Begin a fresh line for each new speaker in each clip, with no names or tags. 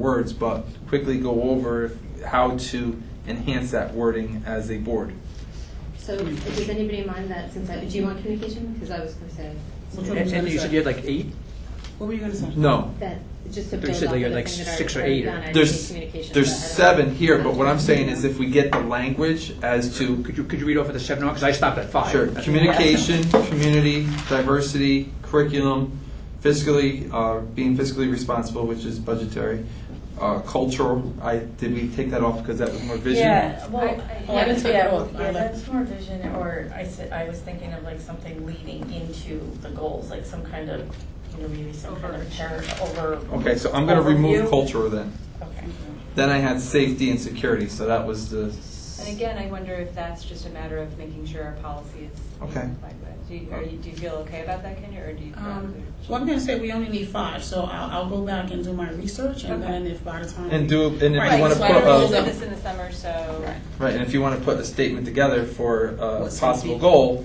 words, but quickly go over if- how to enhance that wording as a board.
So does anybody mind that since I, do you want communication? Because I was going to say
Which one was
And, and
it?
you said you had like eight?
What were you gonna say?
No.
that just to
You
build
said
off
like-
of the
like
thing that
six or
already
eight or-
done, I just need
There's,
communication,
there's
but I don't-
seven here, but what I'm saying is if we get the language as to,
Could you, could you read off of the seven, because I stopped at five.
sure,
That's-
communication, community, diversity, curriculum, fiscally, uh, being fiscally responsible, which is budgetary, uh, cultural, I, did we take that off because that was more vision?
Yeah, well,
I-
Oh, I
yeah,
didn't take it off.
yeah,
I
yeah,
left.
that's more vision, or I said, I was thinking of like something leading into the goals, like some kind of, you know, maybe some kind of chart over.
Okay, so I'm gonna remove
overview.
culture then.
Okay.
Then I had safety and security, so that was the.
And again, I wonder if that's just a matter of making sure our policy is being
Okay.
complied with. Do you, are you, do you feel okay about that, Kenya, or do you?
Um, well, I'm gonna say we only need five, so I'll, I'll go back and do my research, and
Okay.
then if by the time
And do, and if
Right,
you wanna
so
put uh,
I don't
We're
really
a,
know.
doing this in the summer, so.
right, and if you wanna put a statement together for a
What's
possible
safety?
goal,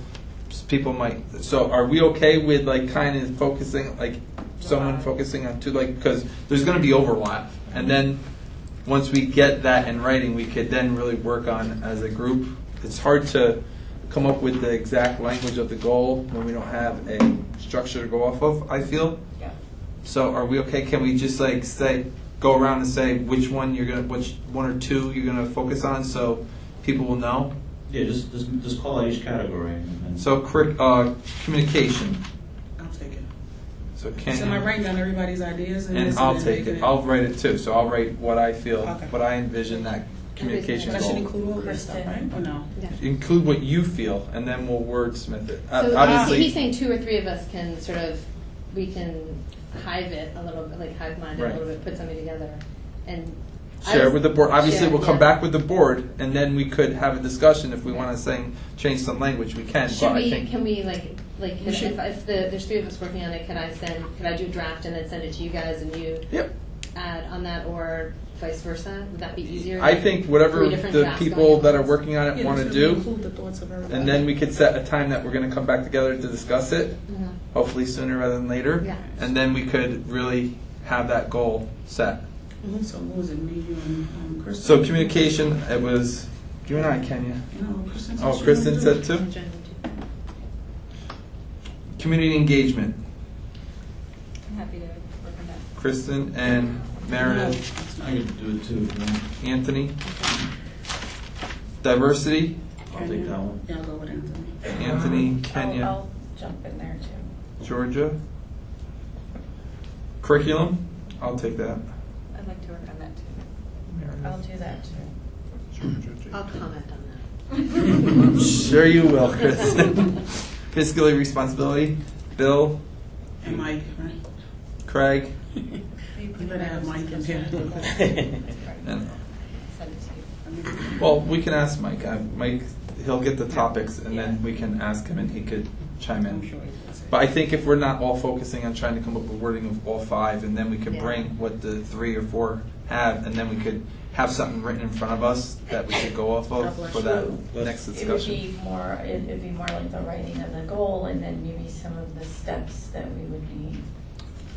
s- people might, so are we okay with like kind of focusing, like someone
Wow.
focusing on two, like, cause there's gonna be overlap. And then, once we get that in writing, we could then really work on as a group. It's hard to come up with the exact language of the goal when we don't have a structure to go off of, I feel.
Yeah.
So are we okay? Can we just like say, go around and say which one you're gonna, which one or two you're gonna focus on, so people will know?
Yeah, just, just, just call out each category and. and-
So curric- uh, communication.
I'll take it.
So can.
So I write down everybody's ideas and.
And
this,
I'll
then
take
make
it. I'll write it too. So I'll write what I feel,
Okay.
what I envision that communication
But I
goal.
should include all this stuff, right?
Kristen.
Or no?
Yeah.
include what you feel, and then we'll wordsmith it. Uh,
So
Obviously,
he's, he's saying two or three of us can sort of, we can hive it a little bit, like hive mind it
Right.
a little bit, put something together, and I
share
was-
with the board. Obviously,
share,
we'll come
yeah.
back with the board, and then we could have a discussion if we want to say change some language. We can,
Should
but
we?
I think
Can we like like
We
if,
should-
if, if the, there's three of us working on it, can I send? Could I do a draft and then send it to you guys and you
Yep.
add on that or vice versa? Would that be easier?
I think whatever
Three different
the
drafts
people
going
that are
on.
working on it
Yeah,
want to
just
do,
Include the thoughts of everybody.
and then we could set a time that we're going to come back together to discuss it.
Mhm.
Hopefully sooner rather than later,
Yeah.
and then we could really have that goal set.
Mm-hmm, So who was it, me, you, and um, Kristen?
So communication, it was you and I, Kenya.
No, Kristen. said
Oh,
she
Kristen
wanted
said
to do it.
two. Community engagement.
I'm happy to work on that.
Kristen and Meredith,
I could do it too, if you want.
Anthony. Diversity,
I'll take that one.
Yeah, I'll go with Anthony.
Anthony,
Uh,
I'll-
Kenya,
I'll jump in there too.
Georgia. Curriculum, I'll take that.
I'd like to work on that too.
I'll
Meredith,
do that too.
Georgia,
I'll
Jacob.
comment on that.
Sure you will, Kristen. Fiscally responsibility, Bill,
And Mike, right?
Craig,
You better have Mike in here.
and,
Send it to you.
well, we can ask Mike. Uh, Mike, he'll get the topics and then we can ask him and he could chime in.
I'm sure he does it.
But I think if we're not all focusing on trying to come up with wording of all five, and then we could
Yeah.
bring what the three or four have, and then we could have something written in front of us that we could go off
God
of
bless
for that
you.
next
It would
discussion.
be more, it- it'd be more like the writing of the goal and then maybe some of the steps that we would need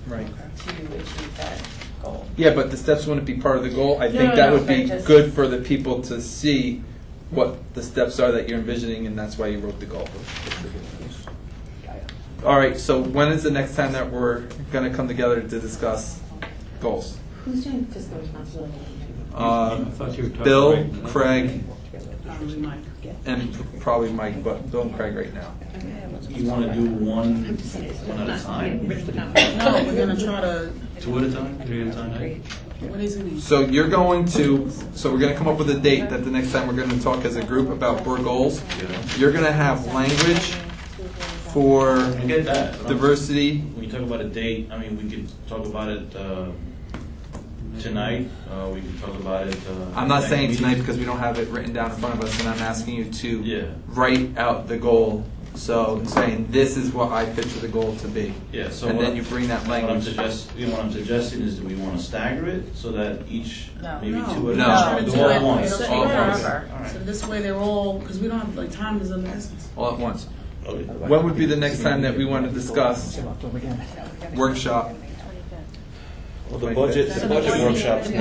Right.
to achieve that goal.
Yeah, but the steps wouldn't be part of the goal. I
No,
think
no,
that
no,
would be
but just-
good for the people to see what the steps are that you're envisioning, and that's why you wrote the goal. All right, so when is the next time that we're gonna come together to discuss goals?
Who's doing fiscal responsibility?
Uh,
I thought you were talking
Bill,
right now.
Craig,
Probably Mike.
and probably Mike, but Bill and Craig right now.
You wanna do one, one at a time?
time.
No, we're gonna try to,
Two at a time, three at a time? eh?
what is it? name?
So you're going to, so we're gonna come up with a date that the next time we're gonna talk as a group about board goals. You're gonna have language for
I get that. but I'm-
diversity.
When you talk about a date, I mean, we could talk about it, uh, tonight, uh, we could talk about it, uh.
I'm not
next
saying
meeting.
tonight because we don't have it written down in front of us, and I'm asking you
Yeah.
to write out the goal. So saying, this is what I picture the goal to be.
Yeah, so.
And
what
then
I-
you bring that
What I'm
language.
suggest, you know, what I'm suggesting is that we wanna stagger it so that each,
No.
maybe
No.
two at a
No.
time.
No.
Do all at once.
It'll
take
all at once.
forever.
All right.
So this way they're all, because we don't have, like, time is of the essence.
All at once.
Okay.
When would be the next time that we want to discuss
October, yeah.
workshop?
Well, the budget, the budget workshop's